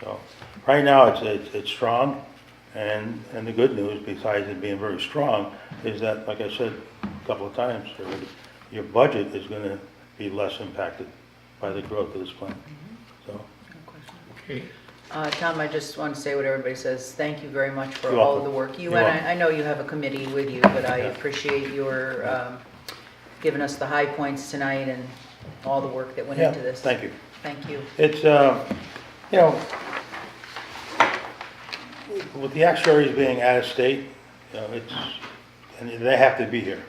So, right now, it's, it's, it's strong, and, and the good news, besides it being very strong, is that, like I said a couple of times already, your budget is gonna be less impacted by the growth of this plant, so. Okay. Uh, Tom, I just want to say what everybody says. Thank you very much for You're all welcome. of the work. You You're and welcome. I, I know you have a committee with you, but I Yeah. appreciate your um, giving us the high points tonight and all the work that went yeah, into this. Thank you. Thank you. It's, uh, you know, with the actuaries being out of state, you know, it's, and they have to be here.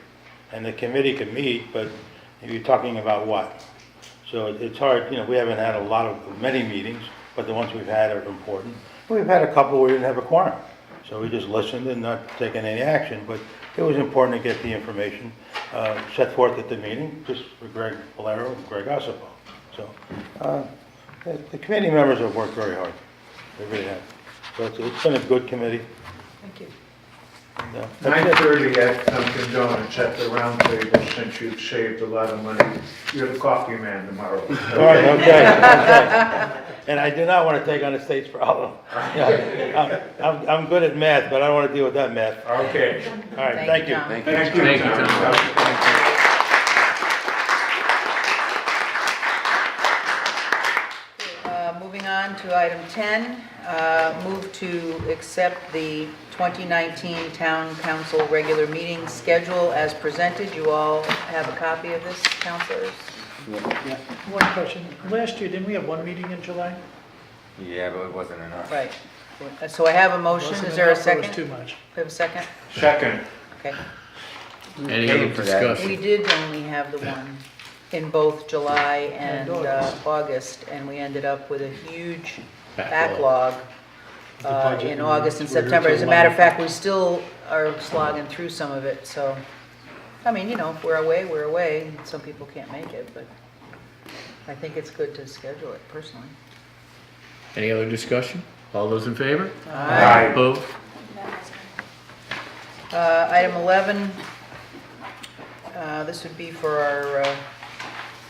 And the committee can meet, but you're talking about what? So it- it's hard, you know, we haven't had a lot of, many meetings, but the ones we've had are important. We've had a couple where we didn't have a quorum, so we just listened and not taking any action, but it was important to get the information uh, set forth at the meeting, just for Greg Valero and Greg Ossipow. So uh, the the committee members have worked very hard, they really have. So it's- it's been a good committee. Thank you. and, uh, that's Nine it. thirty at Dunkin' Donuts at the round table, since you've saved a lot of money. You're the coffee man tomorrow. All right, okay, okay. And I do not want to take on the state's problem. Yeah, I'm, I'm- I'm good at math, but I don't want to deal with that math. Okay. All right, thank you. Tom. Thank you, Tom. Uh, Moving on to item 10, uh, move to accept the 2019 Town Council regular meeting schedule as presented. You all have a copy of this, councilors? One question. Last year, didn't we have one meeting in July? Yeah, but it wasn't enough. Right. So I have a motion. Is there a second? It was too much. We have a second? Second, Okay. Any Pay other for that. We discussion? did only have the one in both July and And uh, August. August, and we ended up with a huge backlog Backlog. uh, budget in and August and we're here September. As a till matter of 11. fact, we still are slogging through some of it, so, I mean, you know, if we're away, we're away. and Some people can't make it, but I think it's good to schedule it personally. Any other discussion? All those in favor? Aye. Opposed? Uh, Item 11, uh, this would be for our uh,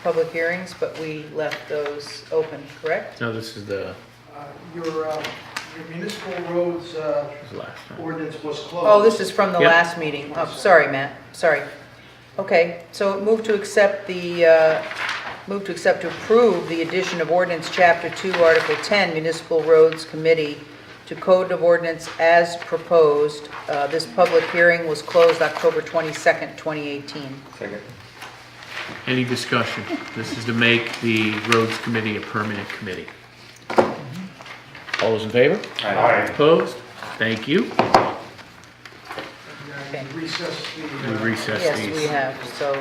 public hearings, but we left those open, correct? No, this is the, Uh, Your uh, your municipal roads uh, this is the last one. ordinance was closed. Oh, this is from the Yep. last meeting. Oh, sorry, Matt, sorry. Okay, so move to accept the, uh, move to accept to approve the addition of ordinance Chapter 2, Article 10, Municipal Roads Committee to Code of Ordinance as proposed. Uh, This public hearing was closed October 22nd, 2018. Second. Any discussion? This is to make the roads committee a permanent committee. All those in favor? all right. Opposed? Thank you. Okay. And Recess the. We uh, recess Yes, we these. have, so,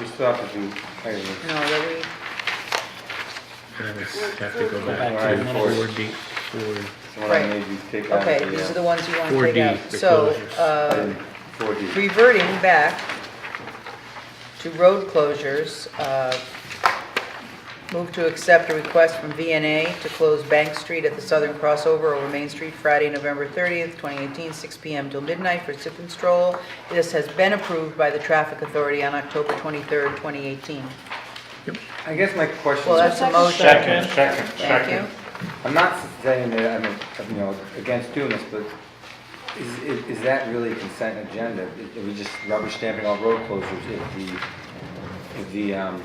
We still have to do, I mean, no, that we, And I just Have to go Back back to to the four D, four, someone I Right. made you take out okay, these are the, the ones you want to 4D take out. So, foreclosures. uh, four D. reverting back to road closures, uh, move to accept a request from VNA to close Bank Street at the southern crossover over Main Street Friday, November 30th, 2018, 6 PM till midnight for sip and stroll. This has been approved by the Traffic Authority on October 23rd, 2018. I guess my question Well, that's is, a motion. Second, second, Thank second. you. I'm not saying that I'm, you know, against doing this, but is, is- is that really a consent agenda? Is- Are we just rubber stamping all road closures if the, if the, um,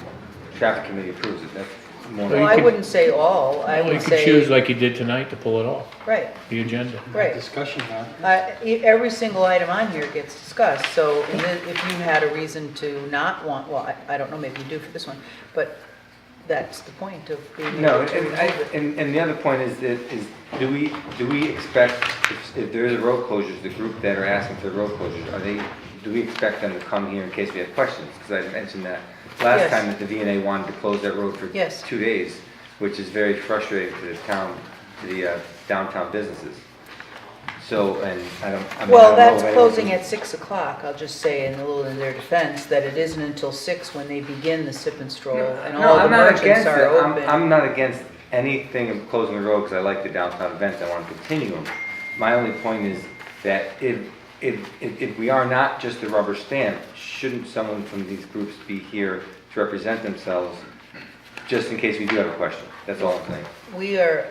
traffic committee approves it? That's more. Well, you I could- wouldn't say all, I Well, you would could choose say, like you did tonight to pull it off, right, the agenda. right. Discussion now. Uh, e- Every single item on here gets discussed, so in the- if you had a reason to not want, well, I- I don't know, maybe you do for this one, but that's the point of being No, able to and, I- remove it. and, and the other point is, that is, do we, do we expect, if, if there is a road closures, the group that are asking for the road closures, are they, do we expect them to come here in case we have questions? Because I mentioned that last Yes. time that the VNA wanted to close that road for Yes. two days, which is very frustrating to the town, to the uh, downtown businesses. So, and I don't, I mean, I don't know. Well, that's if anyone closing can- at 6 o'clock, I'll just say in a little in their defense, that it isn't until 6 when they begin the sip and stroll, and No, all the I'm not merchants against are it. I'm, open. I'm not against anything of closing the road because I like the downtown events. I want to continue them. My only point is that if, if, if, if we are not just a rubber stamp, shouldn't someone from these groups be here to represent themselves just in case we do have a question? That's all I'm saying. We are